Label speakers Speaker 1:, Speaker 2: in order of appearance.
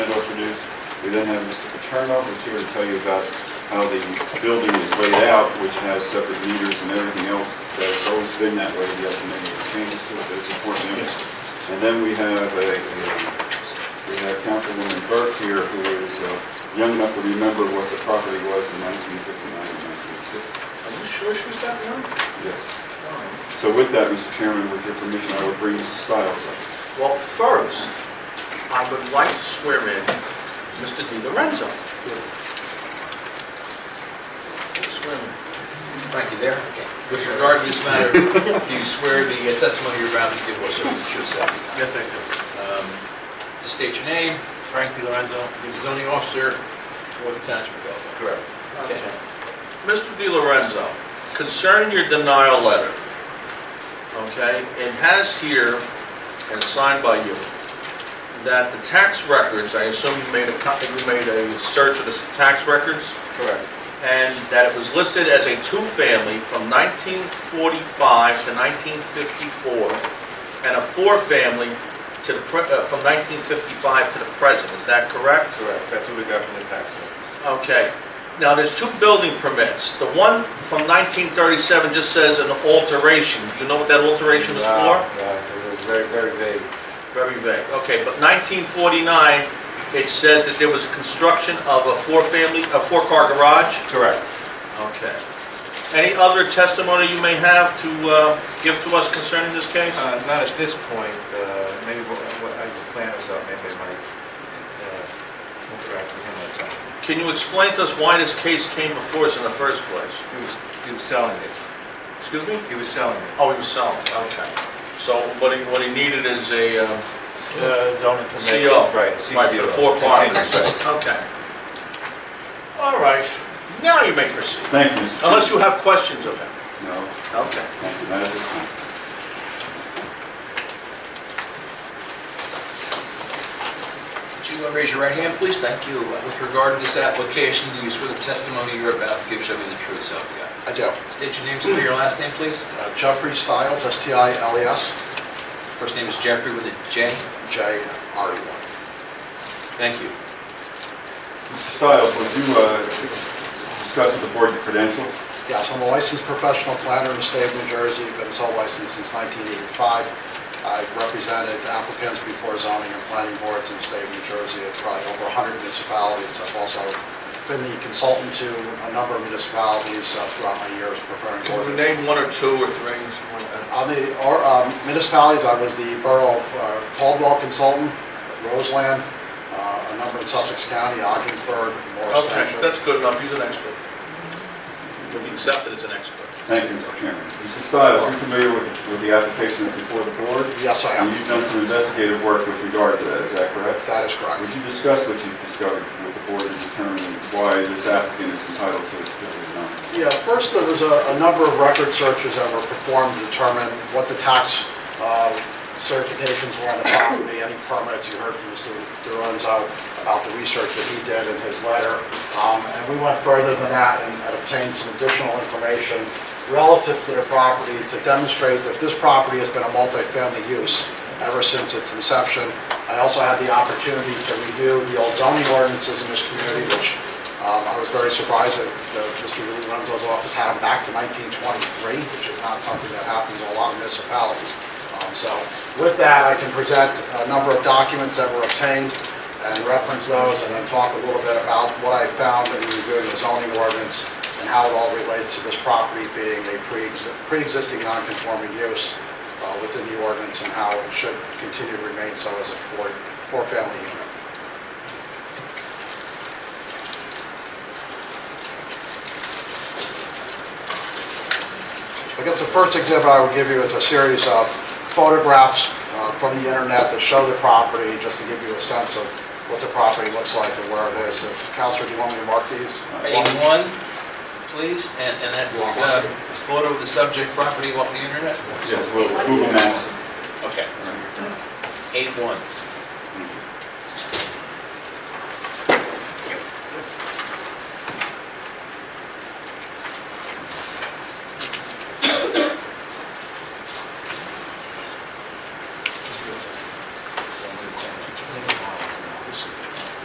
Speaker 1: We then have Mr. Paterno, who's here to tell you about how the building is laid out, which has separate meters and everything else. That's always been that way, we have to make any changes to it, but it's important. to notice. And then we have a, a- we have Councilwoman Burke here, who is uh, young enough to remember what the property was in 1959 and 1960.
Speaker 2: Are you sure she was that young?
Speaker 1: Yes. So with that, Mr. Chairman, with your permission, I will bring Mr. Stiles up.
Speaker 2: Well, first, I would like to swear in Mr. Di Lorenzo. Swear in.
Speaker 3: Thank you there. With regard to this matter, do you swear the testimony you're about to give was the truth, so help you
Speaker 4: Yes, I do.
Speaker 3: God? Um, Just state your name,
Speaker 4: Frank Di Lorenzo.
Speaker 3: you're the zoning officer for the township of Belleville.
Speaker 2: Correct.
Speaker 3: Okay.
Speaker 2: Mr. Di Lorenzo, concerning your denial letter, okay, it has here, and signed by you, that the tax records, I assume you made a, co- you made a search of the tax records?
Speaker 3: Correct.
Speaker 2: and that it was listed as a two-family from 1945 to 1954, and a four-family to the, pre- uh, from 1955 to the present, is that correct?
Speaker 4: Correct, that's what we got from the tax man.
Speaker 2: Okay, now there's two building permits, the one from 1937 just says an alteration, do you know what that alteration is for?
Speaker 4: it was very, very vague.
Speaker 2: Very vague, okay, but 1949, it says that there was a construction of a four-family, a four-car garage?
Speaker 4: Correct.
Speaker 2: Okay. Any other testimony you may have to uh, give to us concerning this case?
Speaker 4: Uh, Not at this point, uh, maybe what- what- as the planners up, maybe I might uh, interact with him on something.
Speaker 2: Can you explain to us why this case came before us in the first place?
Speaker 4: He was, he was selling it,
Speaker 2: Excuse me?
Speaker 4: he was selling it.
Speaker 2: Oh, himself, okay. So what he, what he needed is a uh,
Speaker 4: Zoning
Speaker 2: CO.
Speaker 4: Right,
Speaker 2: Right, for the four
Speaker 4: CCO.
Speaker 2: apartments.
Speaker 4: Continuous, right.
Speaker 2: Okay. All right, now you may proceed,
Speaker 1: Thank you, Mr.
Speaker 2: unless you have questions of him.
Speaker 1: Chairman. No,
Speaker 2: Okay.
Speaker 1: thank you, not at this time.
Speaker 3: Would you uh, raise your right hand, please? Thank you. Uh, With regard to this application, do you swear the testimony you're about to give shall be the truth, so help you God?
Speaker 5: I do.
Speaker 3: State your name, spell your last name, please.
Speaker 5: Uh, Jeffrey Stiles, E S-T-I-L-E-S,
Speaker 3: First name is Jeffrey with a J.
Speaker 5: J-R-E-Y.
Speaker 3: Thank you.
Speaker 1: Mr. Stiles, would you uh, discuss with the board the credentials?
Speaker 5: Yes, I'm a licensed professional planner in the state of New Jersey, been sole licensed since 1985. I've represented applicants before zoning and planning boards in the state of New Jersey, at probably over 100 municipalities. I've also been the consultant to a number of municipalities uh, throughout my years preparing
Speaker 2: Can you
Speaker 5: ordinances.
Speaker 2: name one or two or three? something like that?
Speaker 5: On the or- um, municipalities, I was the Borough of uh, Caldwell Consultant, Roseland, uh, a number in Sussex County, Ogdensburg, Morris
Speaker 2: Okay,
Speaker 5: Township.
Speaker 2: that's good enough, he's an expert. You'll be accepted as an expert.
Speaker 1: Thank you, Mr. Chairman. Mr. Stiles, you're familiar with with the application that's before the board?
Speaker 5: Yes, I am.
Speaker 1: And you've done some investigative work with regard to that, is that correct?
Speaker 5: That is correct.
Speaker 1: Would you discuss what you've discovered with the board and determine why this applicant is entitled to this building or not?
Speaker 5: Yeah, first, there was a, a number of record searches that were performed to determine what the tax uh, certifications were on the property, any permits, you heard from Mr. Duranzo about the research that he did in his letter. Um, And we went further than that and and obtained some additional information relative to the property to demonstrate that this property has been a multifamily use ever since its inception. I also had the opportunity to review the old zoning ordinances in this community, which um, I was very surprised that uh, Mr. Lee Renzo's office had them back to 1923, which is not something that happens in a lot of municipalities. Um, So with that, I can present a number of documents that were obtained and reference those, and then talk a little bit about what I found in reviewing the zoning ordinance and how it all relates to this property being a pre-exi- pre-existing non-conforming use uh, within the ordinance and how it should continue to remain so as a four- four-family unit. I guess the first exhibit I would give you is a series of photographs uh, from the internet that show the property, just to give you a sense of what the property looks like and where it is. If- Counselor, do you want me to mark these?
Speaker 3: A1, please, and and that's uh, a photo of the subject property off the internet?
Speaker 1: Yes, well, Google Maps.
Speaker 3: Okay.
Speaker 1: All right.
Speaker 3: A1.